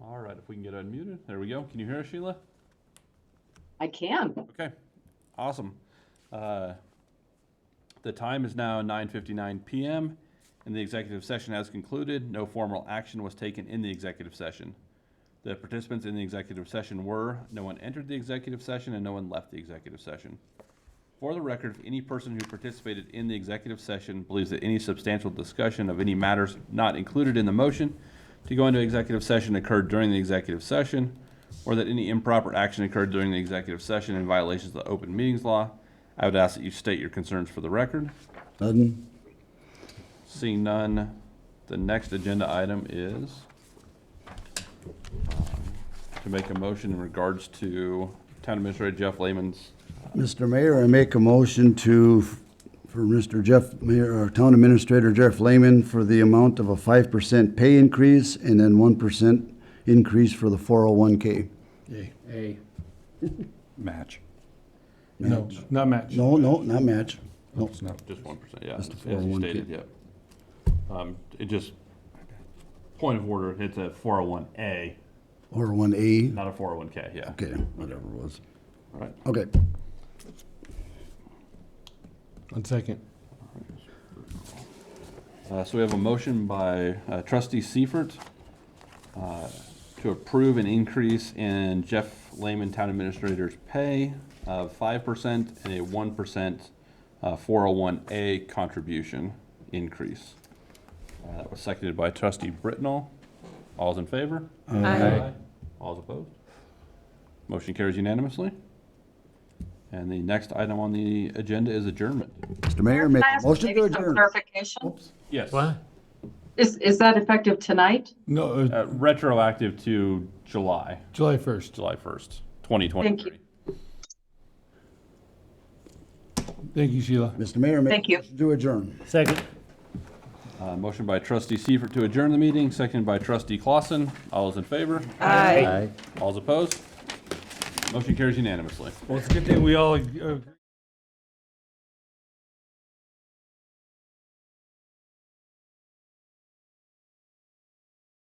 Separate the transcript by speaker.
Speaker 1: All right, if we can get unmuted, there we go. Can you hear us, Sheila?
Speaker 2: I can.
Speaker 1: Okay, awesome. Uh, The time is now 9:59 PM, and the executive session has concluded. No formal action was taken in the executive session. The participants in the executive session were, no one entered the executive session, and no one left the executive session. For the record, if any person who participated in the executive session believes that any substantial discussion of any matters not included in the motion to go into executive session occurred during the executive session, or that any improper action occurred during the executive session in violation of the open meetings law, I would ask that you state your concerns for the record.
Speaker 3: None.
Speaker 1: Seeing none, the next agenda item is um, to make a motion in regards to Town Administrator Jeff Lehman's
Speaker 3: Mr. Mayor, I make a motion to, for Mr. Jeff, Mayor, or Town Administrator Jeff Lehman for the amount of a five percent pay increase and then one percent increase for the four oh one K.
Speaker 4: A.
Speaker 5: Match.
Speaker 4: No, not match.
Speaker 3: No, no, not match. No,
Speaker 5: It's not.
Speaker 1: Just one percent, yeah,
Speaker 3: Just oh the
Speaker 1: as you
Speaker 3: 401k.
Speaker 1: stated, yep. Um, it just, point of order, it's a four oh one A,
Speaker 3: or oh one A.
Speaker 1: not a four oh one K, yeah.
Speaker 3: Okay, whatever it was.
Speaker 1: All right.
Speaker 3: Okay,
Speaker 4: One second.
Speaker 1: Uh, so we have a motion by uh, trustee Seifert, uh, to approve an increase in Jeff Lehman, town administrator's pay of five percent and a one percent, uh, four oh one A contribution increase. Uh, that was seconded by trustee Britnall. All's in favor?
Speaker 2: Aye.
Speaker 1: All's opposed? Motion carries unanimously. And the next item on the agenda is adjournment.
Speaker 3: Mr. Mayor, make a motion to
Speaker 2: Maybe some
Speaker 3: adjourn.
Speaker 2: clarification.
Speaker 1: Yes.
Speaker 2: Is, is that effective tonight?
Speaker 4: No, uh,
Speaker 1: Uh, retroactive to July,
Speaker 4: July 1st.
Speaker 1: July first, twenty twenty-three.
Speaker 4: Thank you, Sheila.
Speaker 3: Mr. Mayor, make
Speaker 2: Thank
Speaker 3: a
Speaker 2: you.
Speaker 3: motion to adjourn.
Speaker 6: Second.
Speaker 1: Uh, motion by trustee Seifert to adjourn the meeting, seconded by trustee Clausen. All is in favor?
Speaker 2: Aye.
Speaker 1: All's opposed? Motion carries unanimously.
Speaker 4: Well, it's a good thing we all uh, agree.